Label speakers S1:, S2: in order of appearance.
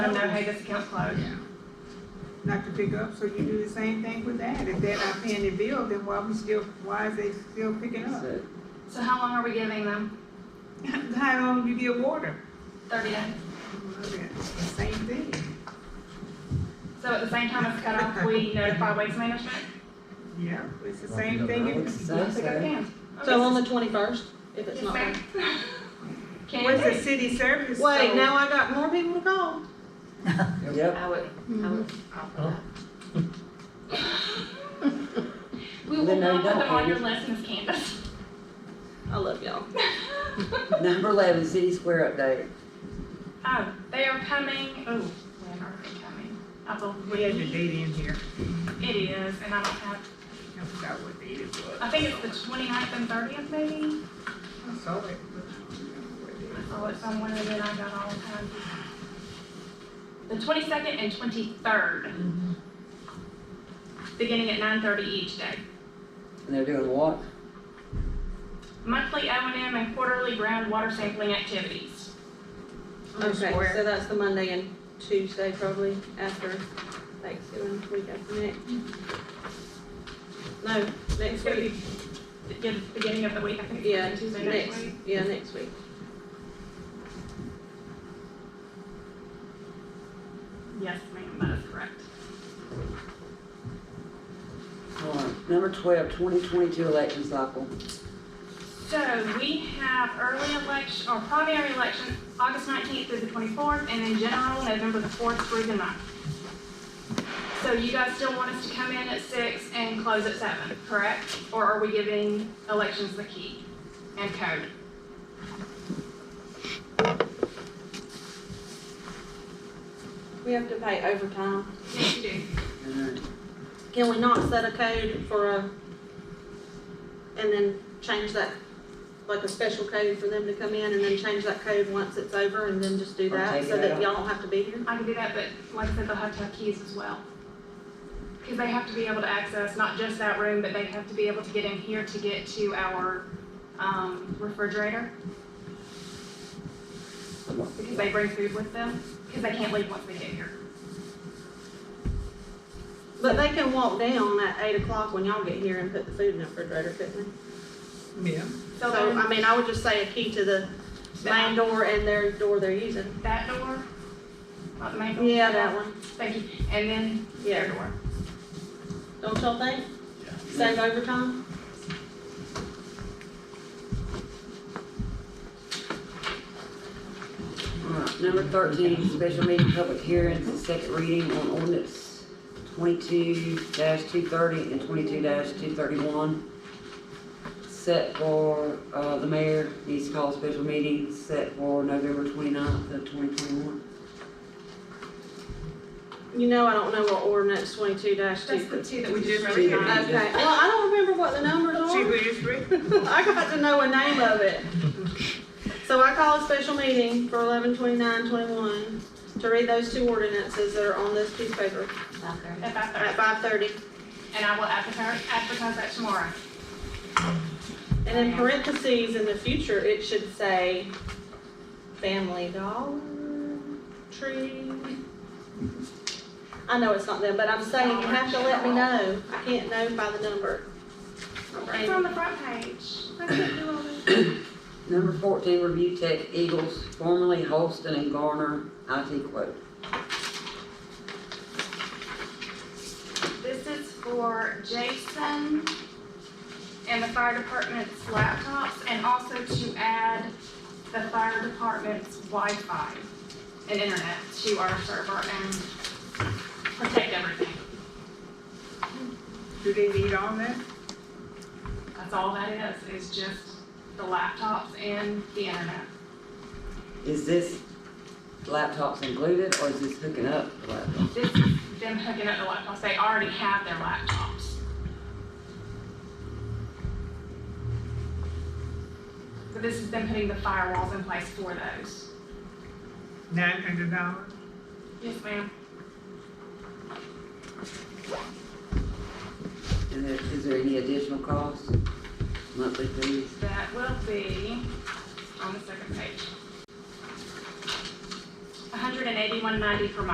S1: made this account close.
S2: Yeah.
S3: not to pick up, so you do the same thing with that. If they're not paying their bill, then why we still, why is they still picking up?
S2: So,
S1: So how long are we giving them?
S3: How long you give water?
S1: Thirty days.
S3: Well, that's the Same thing.
S1: So at the same time as cut off, we notify waste management?
S3: Yeah, it's the same thing.
S2: I would
S3: if-
S2: say
S1: Pick up
S2: so.
S1: cans.
S4: So on
S1: Okay.
S4: the twenty-first, if it's
S1: Yes,
S4: not.
S1: ma'am.
S3: What's the
S1: Can
S3: city service?
S4: Wait,
S3: so-
S4: now I got more people to call.
S2: Yep,
S5: I would, I would offer that.
S1: we, we
S2: Then
S1: will
S2: no,
S1: not
S2: you
S1: put them
S2: don't,
S1: on your
S2: Andy.
S1: list, Miss Candace.
S4: I love y'all.
S2: number eleven, city square update.
S1: Oh, they are coming, oh, when are they coming? I
S3: We had the
S1: believe
S3: date in here.
S1: it is, and I don't have,
S3: I forgot what date it was.
S1: I think it's the 29th and thirtieth maybe?
S3: I saw it. but I don't remember what date
S1: I
S3: it
S1: saw it
S3: was.
S1: somewhere and then I got all kinds of. The twenty-second and twenty-third.
S4: Mm-hmm.
S1: Beginning at nine thirty each day.
S2: And they're doing what?
S1: Monthly O and M and quarterly groundwater sampling activities.
S4: Okay,
S3: Square.
S4: so that's the Monday and Tuesday probably after Thanksgiving, week after next. No,
S1: It's
S4: next
S1: gonna
S4: week,
S1: be, yeah, beginning of the week, I think.
S4: yeah,
S1: Tuesday
S4: next,
S1: next week.
S4: yeah, next week.
S1: Yes, ma'am, that is correct.
S2: All right, number twelve, twenty twenty-two election cycle.
S1: So we have early election, or primary election, August nineteenth through the twenty-fourth, and then general, November the fourth through the 9th. So you guys still want us to come in at six and close at seven, correct? Or are we giving elections the key and code?
S4: We have to pay overtime.
S1: Yes, you do.
S2: And, uh,
S4: Can we not set a code for a, and then change that, like a special code for them to come in and then change that code once it's over and then just do
S2: Or
S4: that
S2: take
S4: so
S2: it
S4: that
S2: out.
S4: y'all don't have to be here?
S1: I can do that, but like I said, they'll have to have keys as well. Because they have to be able to access not just that room, but they have to be able to get in here to get to our um, refrigerator. Because they bring food with them, because they can't leave once they get here.
S4: But they can walk down at eight o'clock when y'all get here and put the food in the refrigerator, couldn't they?
S3: Yeah.
S1: So um,
S4: So, I
S1: there's
S4: mean, I would just say a key to the main door and their door they're using.
S1: that door, not the main door.
S4: Yeah, that one,
S1: Thank you, and then their
S4: yeah.
S1: door.
S4: Don't y'all think? Save overtime?
S2: All right, number thirteen, special meeting, public hearings, and second reading on ordinance twenty-two two thirty and twenty-two two thirty-one. Set for, uh, the mayor needs to call a special meeting set for November twenty-ninth of twenty twenty-one.
S4: You know, I don't know what ordinance twenty-two dash
S1: That's
S4: two.
S1: the two that we
S3: Just
S1: just really
S2: two.
S1: got.
S4: Okay, well, I don't remember what the numbers
S3: See
S4: are.
S3: who just read?
S4: I got to know a name of it. So I call a special meeting for eleven twenty-nine twenty-one to read those two ordinances that are on this piece of paper
S5: Okay.
S1: At five
S4: at
S1: thirty,
S4: five thirty.
S1: and I will advertise, advertise that tomorrow.
S4: And in parentheses, in the future, it should say family dollar tree. I know it's not them, but I'm saying you have to let me know. I can't know by the number.
S1: It's on the front page. I can't do all this.
S2: Number fourteen, review tech Eagles, formerly Holston and Garner, IT quote.
S1: This is for Jason and the fire department's laptops, and also to add the fire department's Wi-Fi and internet to our server and protect everything.
S3: Do they need all that?
S1: That's all that is, is just the laptops and the internet.
S2: Is this laptops included or is this hooking up the laptop?
S1: This is them hooking up the laptops, they already have their laptops. So this is them putting the firewalls in place for those.
S3: Nine hundred dollars?
S1: Yes, ma'am.
S2: And there, is there any additional cost, monthly fees?
S1: That will be on the second page. $181.90 per month.